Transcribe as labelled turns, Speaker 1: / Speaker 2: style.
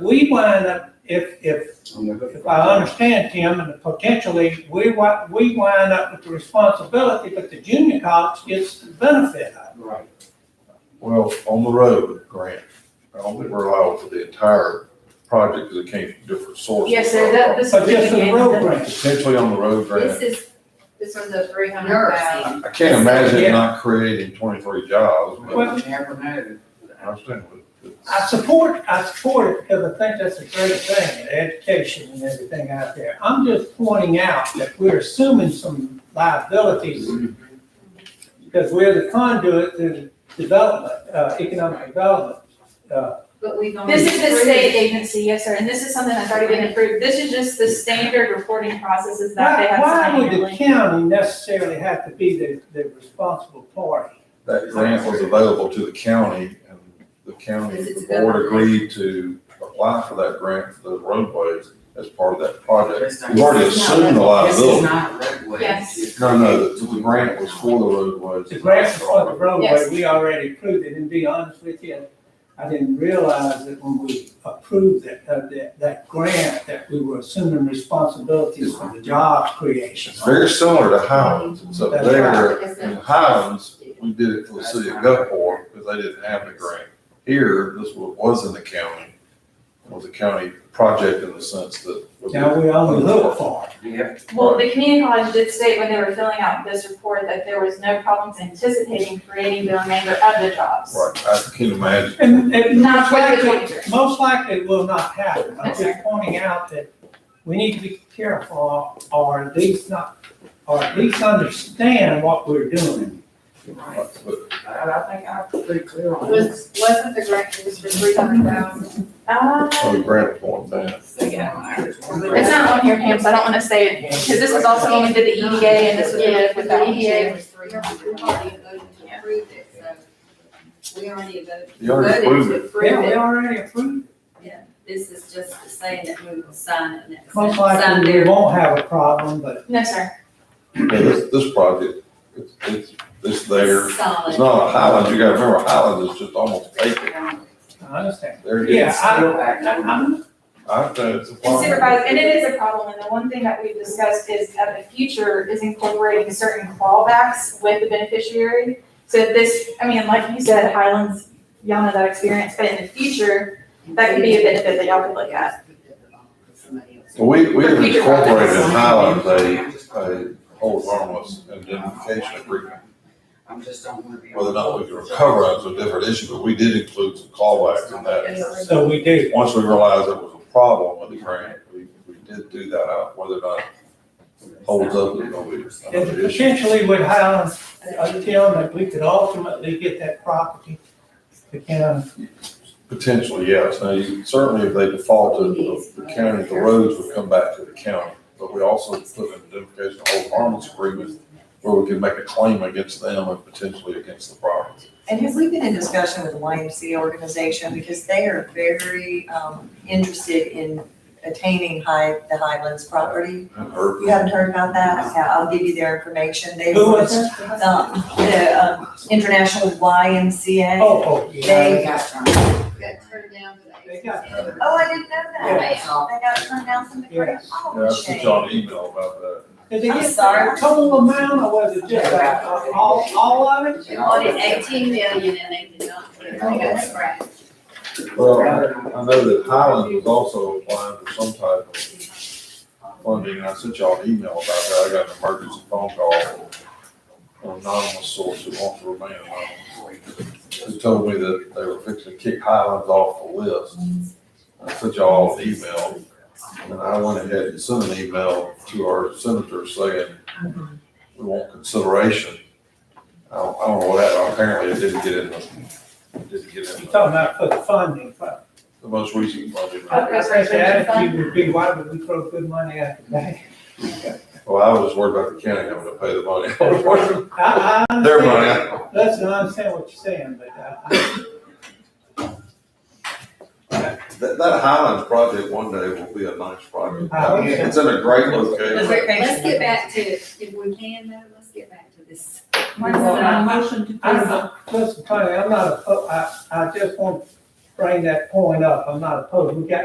Speaker 1: we wind up, if, if, if I understand Tim, and potentially, we wi- we wind up with the responsibility, but the junior college gets the benefit of
Speaker 2: Right.
Speaker 3: Well, on the road grant, I don't think we're allowed for the entire project because it came from different sources.
Speaker 4: Yes, sir, that, this
Speaker 1: it.
Speaker 4: is.
Speaker 1: But just for the road grant,
Speaker 3: Potentially on the road
Speaker 4: This
Speaker 3: grant.
Speaker 4: is, this was the three hundred thousand.
Speaker 3: I I can't imagine not creating twenty-three jobs, but
Speaker 1: Well-
Speaker 2: Never mattered.
Speaker 3: I understand what.
Speaker 1: I support, I support it because I think that's a great thing, education and everything out there. I'm just pointing out that we're assuming some liabilities because we're the conduit to development, uh, economic development. Uh,
Speaker 4: But we've only.
Speaker 5: This is the
Speaker 4: approved-
Speaker 5: state agency, yes, sir, and this is something that's already been approved. This is just the standard reporting processes that they
Speaker 1: Why,
Speaker 5: have.
Speaker 1: why would
Speaker 5: signed.
Speaker 1: the county necessarily have to be the, the responsible party?
Speaker 3: That grant was available to the county and the county, the board agreed to apply for that grant for the roadways as part of that project.
Speaker 2: This
Speaker 3: We've already
Speaker 4: This is not-
Speaker 3: assumed the
Speaker 2: is
Speaker 3: liability.
Speaker 2: not roadway.
Speaker 5: Yes.
Speaker 3: No, no, the, the grant was for the roadways.
Speaker 1: The grant for the roadway,
Speaker 5: Yes.
Speaker 1: we already approved it, and to be honest with you, I didn't realize that when we approved that, uh, that, that grant, that we were assuming responsibilities for the job creation.
Speaker 3: It's very similar to Highlands, it's up
Speaker 1: That's
Speaker 3: there,
Speaker 4: right.
Speaker 3: in Highlands, we did it for the city of Gulfport, because they didn't have the grant. Here, this was, was in the county, It was a county project in the sense that. was-
Speaker 1: Now, we only look for it.
Speaker 2: Yep.
Speaker 5: Well, the community college did state when they were filling out this report that there was no problems anticipating creating the remainder of the jobs.
Speaker 3: Right, I can imagine,
Speaker 1: And, and most
Speaker 5: Not for the
Speaker 1: likely,
Speaker 5: winter.
Speaker 1: most likely it will not happen. I'm
Speaker 5: That's
Speaker 1: just pointing out that we need to be careful, or at least not, or at least understand what we're doing.
Speaker 2: Right.
Speaker 3: but
Speaker 2: I, I think I'm pretty clear on this.
Speaker 4: Was, wasn't the grant used for three hundred thousand?
Speaker 5: Uh,
Speaker 3: the grant point, man.
Speaker 5: it's not on here, Pam, so I don't wanna say it, because this was also when we did the EDA and this was
Speaker 4: Yeah, but
Speaker 5: with the E
Speaker 4: the EDA
Speaker 5: EDA.
Speaker 4: was three hundred, we already voted to approve it, so we already voted.
Speaker 3: You already
Speaker 4: voted
Speaker 3: approved
Speaker 4: to
Speaker 1: Yeah,
Speaker 3: it.
Speaker 4: approve
Speaker 1: we
Speaker 4: it.
Speaker 1: already approved.
Speaker 4: This is just to say that we will sign it next.
Speaker 1: Most
Speaker 4: sign
Speaker 1: likely we
Speaker 4: their-
Speaker 1: won't have a problem, but
Speaker 5: No, sir.
Speaker 3: Yeah, this, this project, it's, it's, it's there,
Speaker 4: Solid.
Speaker 3: it's not a Highlands, you gotta remember, Highlands is just almost vacant,
Speaker 1: I understand.
Speaker 3: there it
Speaker 1: Yeah,
Speaker 3: is.
Speaker 1: I,
Speaker 2: Still acting.
Speaker 1: I- I'm
Speaker 3: I, know it's a
Speaker 5: And
Speaker 3: farm.
Speaker 5: supervised, and it is a problem, and the one thing that we've discussed is that the future is incorporating certain clawbacks with the beneficiary. So this, I mean, like you said, Highlands, y'all know that experience, but in the future, that could be a benefit that y'all could look at.
Speaker 3: Well, We, we have
Speaker 5: For future
Speaker 3: incorporated in
Speaker 5: projects.
Speaker 3: Highlands a, a hold harmless indemnification agreement,
Speaker 2: I'm just don't wanna be.
Speaker 3: whether or not we can recover, that's a different issue, but we did include some callbacks in that.
Speaker 1: So we do.
Speaker 3: Once we realized there was a problem with the grant, we, we did do that out, whether or not it holds up, is gonna be
Speaker 1: And
Speaker 3: another issue.
Speaker 1: potentially with Highlands, I tell them that we could ultimately get that property to county.
Speaker 3: Potentially, yes. Now, you, certainly if they defaulted, the the county, the roads would come back to the county. But we also put an indemnification hold harmless agreement where we can make a claim against them and potentially against the property.
Speaker 6: And have we been in discussion with the YMCA organization, because they are very, um, interested in attaining high, the Highlands property?
Speaker 3: And her-
Speaker 6: You haven't heard about that? Yeah, I'll give you their information, they.
Speaker 1: Who was
Speaker 6: um,
Speaker 1: it?
Speaker 6: The, um, International YMCA.
Speaker 1: Oh, oh, yeah.
Speaker 2: They got some.
Speaker 4: Got turned down for that.
Speaker 1: They got turned
Speaker 6: Oh, I didn't know that.
Speaker 4: Yeah.
Speaker 2: It's all-
Speaker 6: They got turned down from the grant.
Speaker 3: Yeah, I
Speaker 6: Oh,
Speaker 3: sent
Speaker 6: shame.
Speaker 3: y'all an email about that.
Speaker 1: Did they
Speaker 6: I'm
Speaker 1: get
Speaker 6: sorry.
Speaker 1: the total amount or was it just like, uh, all, all of it?
Speaker 4: They wanted eighteen million and they did not, get it. they got scrapped.
Speaker 3: Well, I know that Highland was also applying for some type of funding, and I sent y'all an email about that, I got an emergency phone call from an anonymous source who wants to remain anonymous, who told me that they were fixing to kick Highlands off the list. I sent y'all an email, and I went ahead and sent an email to our senator saying, we want consideration. I don't, I don't know what happened, apparently it didn't get in the, it didn't get in
Speaker 1: You're
Speaker 3: the
Speaker 1: talking about for the funding, but
Speaker 3: the most recent budget.
Speaker 1: I think the attitude would be, why would we throw good money after that?
Speaker 3: Well, I was worried about the county having to pay the money.
Speaker 1: I, I
Speaker 3: Their
Speaker 1: understand,
Speaker 3: money.
Speaker 1: listen, I understand what you're saying, but uh, I,
Speaker 3: That, that Highlands project one day will be a nice project.
Speaker 1: I understand.
Speaker 3: It's in a great
Speaker 4: Let's
Speaker 3: location.
Speaker 4: let's get back to, if we can though, let's get back to this.
Speaker 6: Oh,
Speaker 5: Why is it a
Speaker 7: motion to
Speaker 1: I don't know, listen, Tony, I'm not, oppo- I, I just want to bring that point up, I'm not opposed, we got